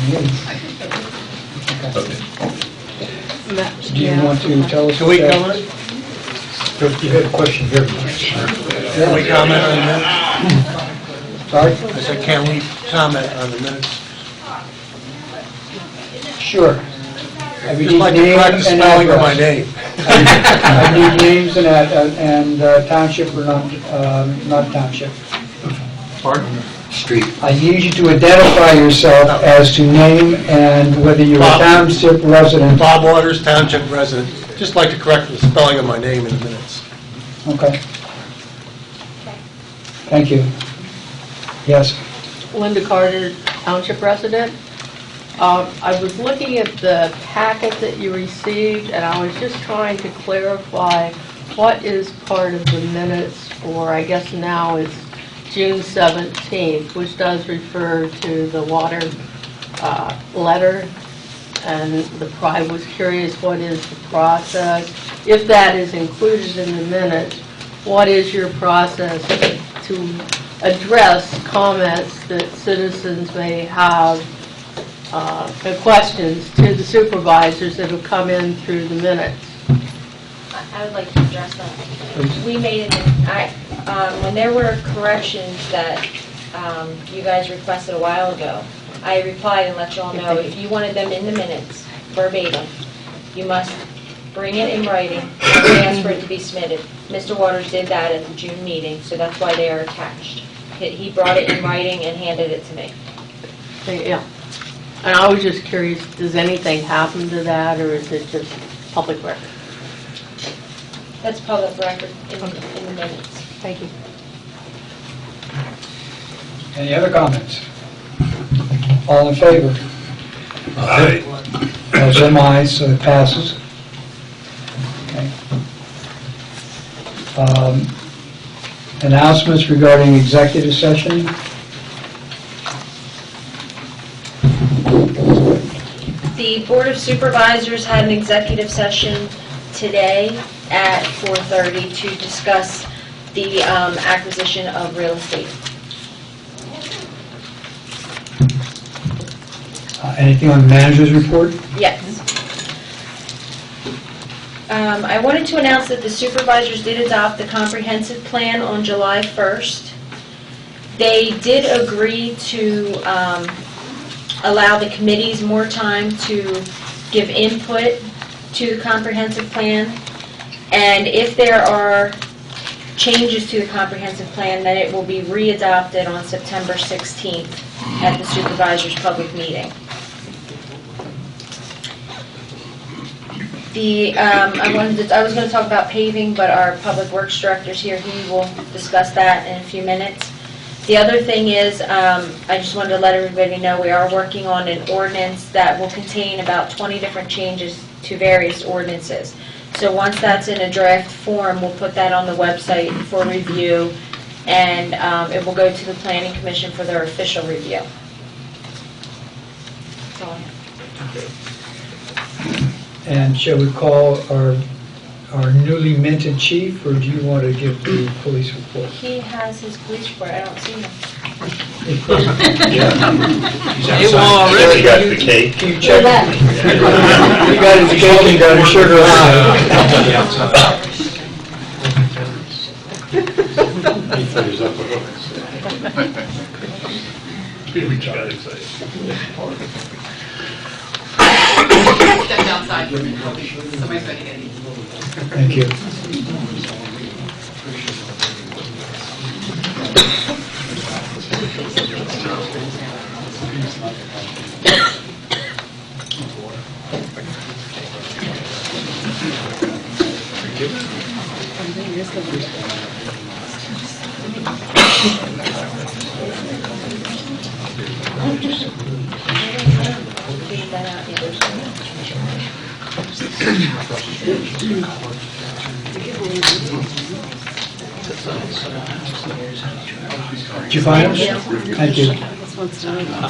needs. Okay. Much, Do you yeah. want to tell us? Can we about- comment? You had a question here. Can we comment on that? Sorry? I said, can we comment on the minutes? Sure. I would Just like need to name practice and spelling of my address. name. I need names and, ad- and uh, township or not, um, not township. Pardon? Street. I need you to identify yourself as to name and whether you're a Bob. township resident. Bob Waters, Township resident. Just like to correct the spelling of my name in the minutes. Okay. Thank you. Yes. Linda Carter, Township resident. Um, I was looking at the packet that you received, and I was just trying to clarify what is part of the minutes for, I guess now it's June 17th, which does refer to the water uh, letter, and the, pro- I was curious, what is the process? If that is included in the minutes, what is your process to address comments that citizens may have, uh, the questions to the supervisors that have come in through the minutes. I I would like to address that. We made, an I, um, when there were corrections that um, you guys requested a while ago, I replied and let you all know, if you wanted them in the minutes verbatim, you must bring it in writing and ask for it to be submitted. Mr. Waters did that at the June meeting, so that's why they are attached. He he brought it in writing and handed it to me. They- Yeah. And I was just curious, does anything happen to that, or is it just public record? That's public record in in the minutes. Thank you. Any other comments? All in favor? Aye. As am I, so it passes. Okay. Um, Announcements regarding executive session? Uh, The Board of Supervisors had an executive session today at 4:30 to discuss the um, acquisition of real estate. Uh, Anything on the manager's report? Yes. Um, I wanted to announce that the supervisors did adopt the comprehensive plan on July 1st. They did agree to um, allow the committees more time to give input to the comprehensive plan. And if there are changes to the comprehensive plan, then it will be readopted on September 16th at the supervisors' public meeting. The, um, I wanted to, I was gonna talk about paving, but our public works director's here, he will discuss that in a few minutes. The other thing is, um, I just wanted to let everybody know, we are working on an ordinance that will contain about twenty different changes to various ordinances. So once that's in a draft form, we'll put that on the website for review, and, um, it will go to the planning commission for their official review. That's all I have. And shall we call our, our newly minted chief, or do you want to give the police report? He has his police report, I don't see him. It will already, Got the cake. You check. You got his cake and got his sugar on. stepped outside, somebody's going to get it. Thank you. Leave that out, yeah. Did you find it? Thank you.